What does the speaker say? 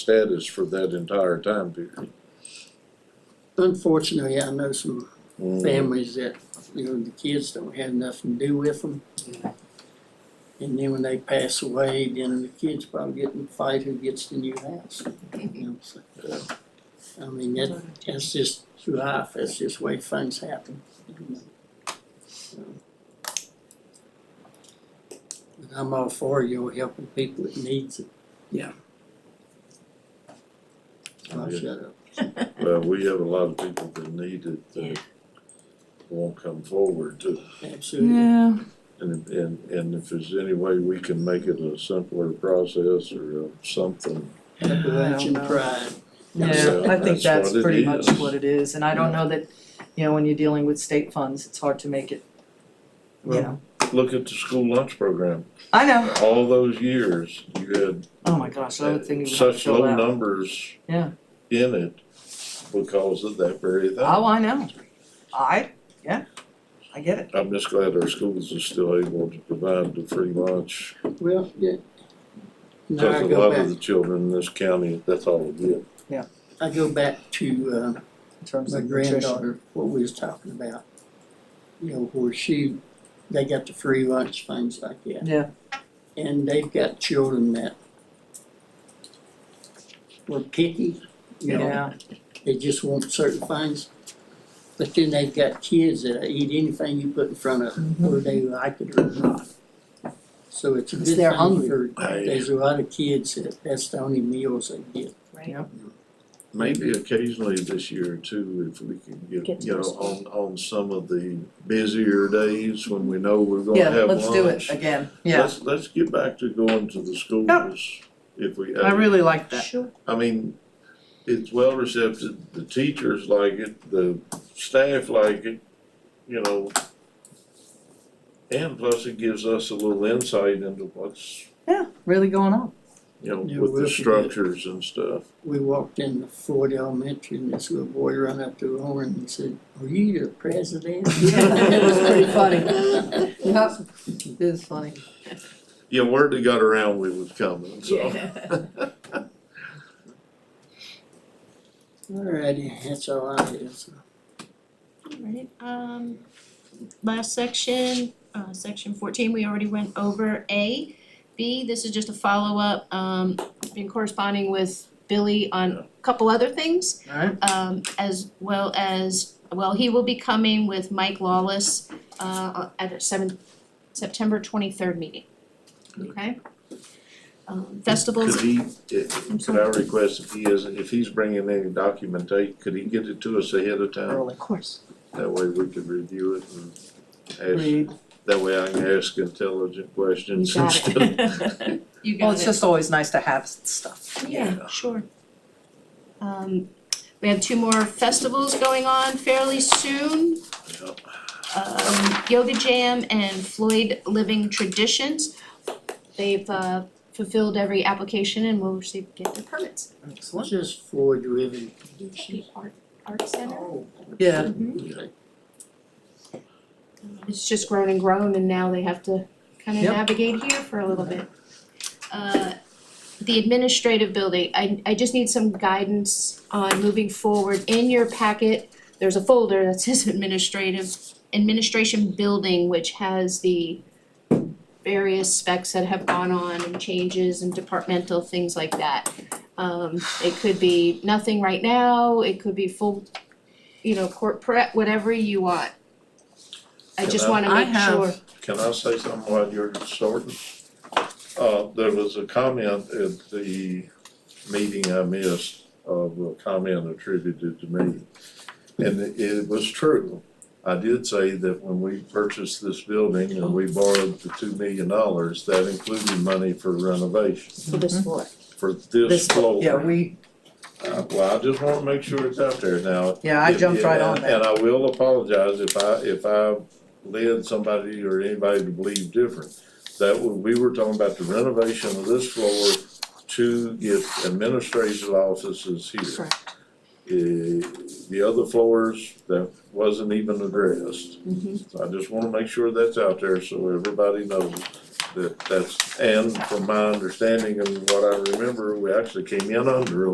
status for that entire time period. Unfortunately, I know some Mm-hmm. Mm. families that, you know, the kids don't have nothing to do with them. And then when they pass away, then the kids probably get in a fight who gets the new house, you know, so. Yeah. I mean, that, that's just life, that's just the way things happen, you know. So. But I'm all for you helping people that needs it, I'll Yeah. shut up. Well, we have a lot of people that need it that won't come forward to, Absolutely, Yeah, and, and, and if there's any way we can make it a simpler process or a something. Appalachian pride. yeah, So I think that's that's what pretty it much is. what it is, and I don't know that, you know, when you're dealing with state funds, it's hard to make it, you Well, know. Look at the school lunch program, I know, all those years, you had oh my gosh, I would think it would have to such fill low out. numbers Yeah. in it because of that very thing. Oh, I know, I, yeah, I get it, I'm just glad our schools are still able to provide the free lunch, Well, yeah. Now because I a go lot of the back, children in this county, that's all they get. I go back to in uh terms my of nutrition, granddaughter, what we was talking about. You know, where she, they got the free lunch, things like that. yeah, And they've got children that were picky, you know, yeah, they just want certain things. But then they've got kids that eat anything you put in front of Mm-hmm. them, whether they like it or not. So it's a It's good their thing hungry. for, I- there's a lot of kids that, that's the only meals they get. Maybe occasionally this year too, if we can Get get, to you know, those on, on some of the busier days when we know we're yeah, gonna have lunch. let's do it again, yeah, Let's, let's get back to going to the schools if we. I really like that, Sure. I mean, it's well received, the teachers like it, the staff like it, you know. And plus it gives us a little insight into what's, yeah, really going on, you know, Yeah, with we'll the forget. structures and stuff. we walked in the Ford Elementary and this little boy ran up to the horn and said, are you the president? Yeah, it was pretty funny. yeah, it is funny, Yeah, word that got around we was coming, so. Alrighty, that's all I have. so. Alright, um, last section, uh, section fourteen, we already went over A. B, this is just a follow-up, um, been corresponding with Billy on Yeah. a couple other things, alright, um, as well as, well, he will be coming with Mike Lawless, uh, at a seven, September twenty-third meeting. Okay? Um, festivals, Could he, i- could I request if he is, if he's bringing any documentation, could he get it to us ahead of time? early, of course. That way we could review it and ask, read, that way I can ask intelligent questions You got instead of it. You got it. well, it's just always nice to have stuff, Yeah, Yeah. sure. Um, we have two more festivals going on fairly soon. Yep. Um, Yoga Jam and Floyd Living Traditions. They've uh fulfilled every application and will receive, get their permits. What's excellent, this Ford ribbon? Oh, The Art, Art Center. yeah, Mhm. Yeah. It's just grown and grown and now they have to kind of Yep. navigate here for a little bit. Uh, the administrative building, I I just need some guidance on moving forward. In your packet, there's a folder that says administrative, administration building, which has the various specs that have gone on and changes and departmental things like that. Um, it could be nothing right now, it could be full, you know, corporate, whatever you want. I just wanna uh, I make sure. have- Can I say something while you're sorting? Uh, there was a comment at the meeting I missed, of a comment attributed to me. And it- it was true. I did say that when we purchased this building and we borrowed the two million dollars, that included money for renovation, for Mm-hmm. this floor. for this This- floor. yeah, we, Uh, well, I just wanna make sure it's out there now. yeah, I If- jumped right and- on that, And I will apologize if I, if I led somebody or anybody to believe different. That was, we were talking about the renovation of this floor to get administrative offices here. Eh, the other floors, that wasn't even addressed. Mhm. Mm-hmm. So I just wanna make sure that's out there so everybody knows that that's, and from my understanding and what I remember, we actually came in under a